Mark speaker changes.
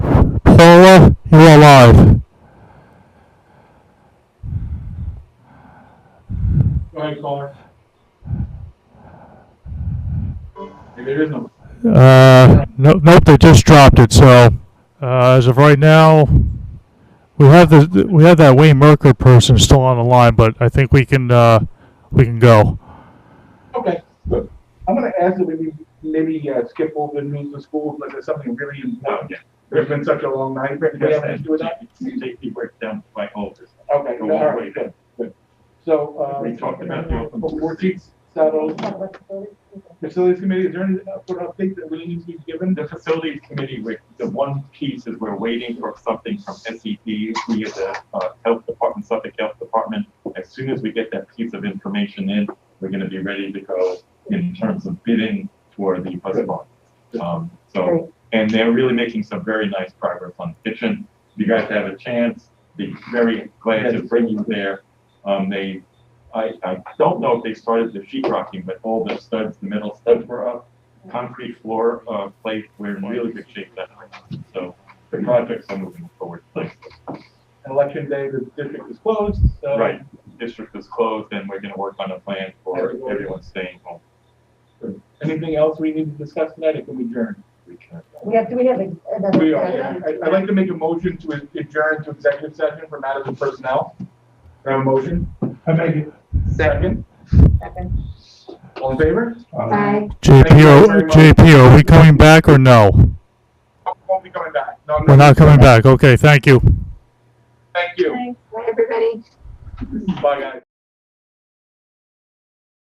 Speaker 1: There is no.
Speaker 2: Uh, no, nope, they just dropped it. So uh, as of right now, we have the we have that Wayne Merker person still on the line, but I think we can uh, we can go.
Speaker 1: Okay, so I'm gonna ask that maybe, maybe uh, skip over the news of schools, like there's something really important. It's been such a long night, but we have to do that.
Speaker 3: Safety breakdown by all this.
Speaker 1: Okay,
Speaker 3: Go
Speaker 1: all
Speaker 3: all the way
Speaker 1: right, good, good. So, uh.
Speaker 3: We talked about the open
Speaker 1: Awardees, saddles,
Speaker 4: Well,
Speaker 1: facilities committee, is there any, uh, sort of update that really needs to be given?
Speaker 3: The facilities committee, we- the one piece is we're waiting for something from SED, we at the uh, health department, Suffolk Health Department. As soon as we get that piece of information in, we're gonna be ready to go in terms of bidding for the bus barn. Um, so, and they're really making some very nice progress on kitchen. If you guys have a chance, be very glad to bring you there. Um, they, I, I don't know if they started the sheetrocking, but all the studs, the metal studs were up concrete floor, uh, plate, we're in really good shape that way. So the projects are moving forward, like,
Speaker 1: Election day, the district is closed, so.
Speaker 3: right, district is closed and we're gonna work on a plan for
Speaker 1: Everyone.
Speaker 3: everyone staying home.
Speaker 1: Anything else we need to discuss tonight, it can be adjourned.
Speaker 3: We can- uh,
Speaker 4: We have, do we have a- another?
Speaker 1: We are, yeah. I- I'd like to make a motion to adjourn to executive session for matters of personnel. Do I have a motion? I make it. Second,
Speaker 4: Second.
Speaker 1: all in favor?
Speaker 4: Bye.
Speaker 1: Thank
Speaker 2: JP,
Speaker 1: you
Speaker 2: are,
Speaker 1: very much.
Speaker 2: JP, are we coming back or no?
Speaker 1: I Oh, won't be coming back. No, I'm
Speaker 2: We're not coming back. Okay, thank you.
Speaker 1: Thank you.
Speaker 4: Bye, everybody.
Speaker 1: Bye, guys.